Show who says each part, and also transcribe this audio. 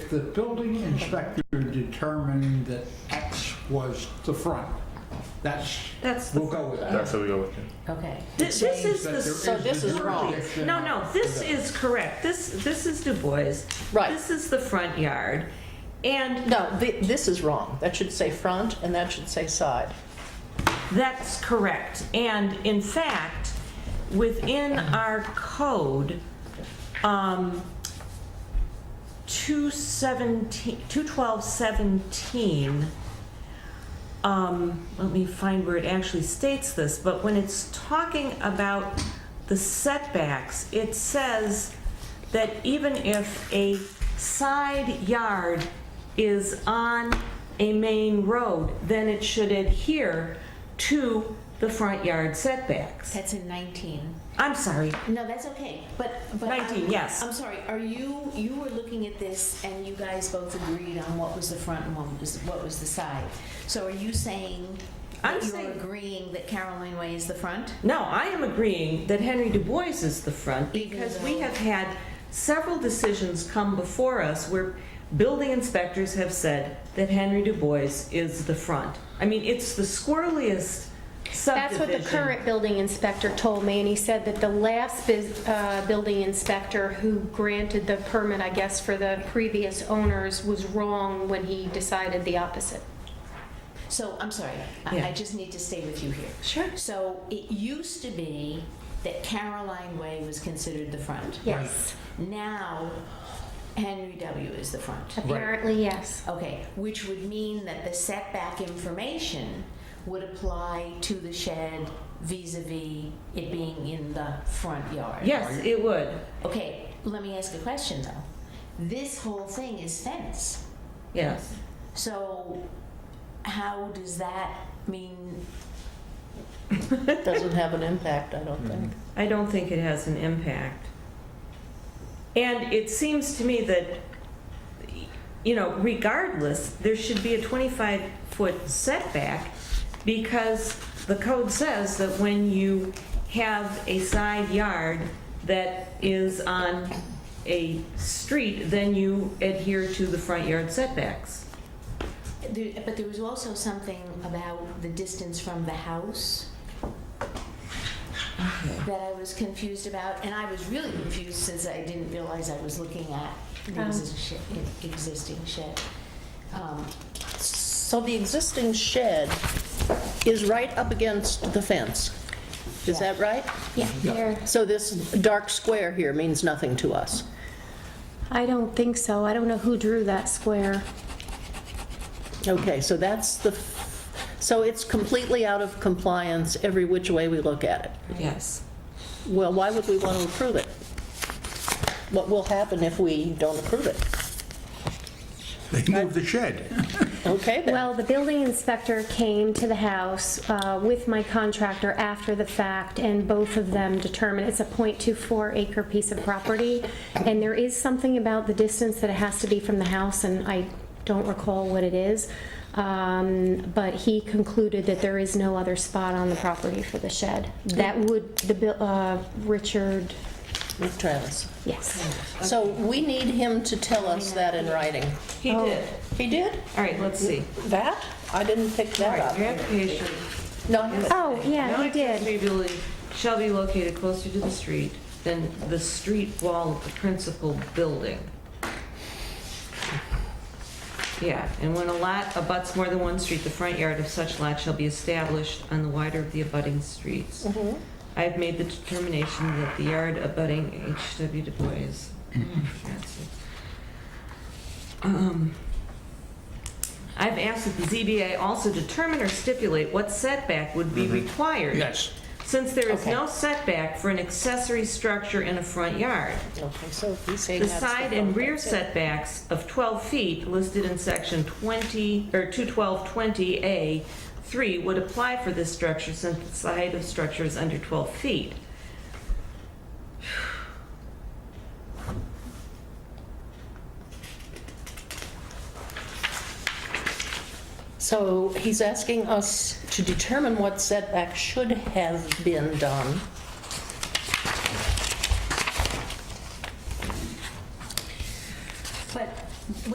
Speaker 1: the building inspector determined that X was the front, that's,
Speaker 2: That's the
Speaker 1: we'll go with
Speaker 3: That's
Speaker 1: that.
Speaker 3: how we go with it.
Speaker 4: Okay.
Speaker 2: This, this is
Speaker 1: That
Speaker 2: the.
Speaker 1: there
Speaker 4: So this
Speaker 1: the
Speaker 4: is wrong.
Speaker 1: jurisdiction
Speaker 2: No, no, this
Speaker 1: for that.
Speaker 2: is correct. This, this is Du Bois.
Speaker 4: Right.
Speaker 2: This is the front yard. And
Speaker 4: No, th- this is wrong. That should say front and that should say side.
Speaker 2: that's correct. And in fact, within our code, um, 217, 21217, um, let me find where it actually states this, but when it's talking about the setbacks, it says that even if a side yard is on a main road, then it should adhere to the front yard setbacks.
Speaker 5: That's in 19.
Speaker 2: I'm sorry,
Speaker 5: No, that's okay. But but
Speaker 2: 19,
Speaker 5: I'm,
Speaker 2: yes.
Speaker 5: I'm sorry. Are you you were looking at this and you guys both agreed on what was the front and what was what was the side. So are you saying that
Speaker 2: I'm
Speaker 5: you're
Speaker 2: saying-
Speaker 5: agreeing that Caroline Way is the front?
Speaker 2: No, I am agreeing that Henry Du Bois is the front because we have had several decisions come before us where building inspectors have said that Henry Du Bois is the front. I mean, it's the squirreliest
Speaker 6: That's what the
Speaker 2: subdivision.
Speaker 6: current building inspector told me, and he said that the last bus- uh, building inspector who granted the permit, I guess, for the previous owners was wrong when he decided the opposite.
Speaker 5: So I'm sorry.
Speaker 2: Yeah.
Speaker 5: I, I just need to stay with you here.
Speaker 2: Sure.
Speaker 5: So it used to be that Caroline Way was considered the front.
Speaker 6: Yes.
Speaker 5: Now Henry W is the front.
Speaker 6: Apparently, yes.
Speaker 5: Okay, which would mean that the setback information would apply to the shed vis-a-vis it being in the front yard.
Speaker 2: Yes, it would.
Speaker 5: Okay, let me ask a question though. This whole thing is fence,
Speaker 2: Yes.
Speaker 5: so how does that mean?
Speaker 4: It doesn't have an impact, I don't think.
Speaker 6: Mm-hmm.
Speaker 2: I don't think it has an impact. And it seems to me that, you know, regardless, there should be a 25-foot setback because the code says that when you have a side yard that is on a street, then you adhere to the front yard setbacks.
Speaker 5: There, but there was also something about the distance from the house that I was confused about, and I was really confused since I didn't realize I was looking at the
Speaker 6: Um.
Speaker 5: exi- sh- existing shed. Um,
Speaker 4: So the existing shed is right up against the fence. Is that right?
Speaker 6: Yeah. There.
Speaker 4: So this dark square here means nothing to us.
Speaker 6: I don't think so. I don't know who drew that square.
Speaker 4: Okay, so that's the, so it's completely out of compliance every which way we look at it.
Speaker 2: Yes.
Speaker 4: Well, why would we want to approve it? What will happen if we don't approve it?
Speaker 7: They moved the shed.
Speaker 4: Okay then.
Speaker 6: Well, the building inspector came to the house uh, with my contractor after the fact, and both of them determined it's a .24 acre piece of property, and there is something about the distance that it has to be from the house, and I don't recall what it is, Um, but he concluded that there is no other spot on the property for the shed. That would, the, buil- uh, Richard,
Speaker 4: With Travis.
Speaker 6: yes.
Speaker 4: So we need him to tell us that in writing.
Speaker 2: He did.
Speaker 4: He did?
Speaker 2: All right, let's see.
Speaker 4: That? I didn't pick
Speaker 2: All
Speaker 4: that
Speaker 2: right, your
Speaker 4: up.
Speaker 2: application
Speaker 4: No, I haven't.
Speaker 6: Oh, yeah,
Speaker 2: No
Speaker 6: he did.
Speaker 2: accessory building shall be located closer to the street than the street wall of the principal building. Yeah, and when a lot abuts more than one street, the front yard of such lot shall be established on the wider of the abutting streets.
Speaker 6: Mm-hmm.
Speaker 2: I have made the determination that the yard abutting HW Du Bois. That's it. Um, I've asked that the ZBA also determine or stipulate what setback would be required.
Speaker 1: Yes,
Speaker 2: Since there is
Speaker 4: Okay.
Speaker 2: no setback for an accessory structure in a front yard,
Speaker 4: Okay, so he's saying
Speaker 2: the
Speaker 4: that's the...
Speaker 2: side and
Speaker 4: front,
Speaker 2: rear
Speaker 4: that's it.
Speaker 2: setbacks of 12 feet listed in section 20, or 21220A 3 would apply for this structure since the side of structure is under 12 feet.
Speaker 4: So he's asking us to determine what setback should have been done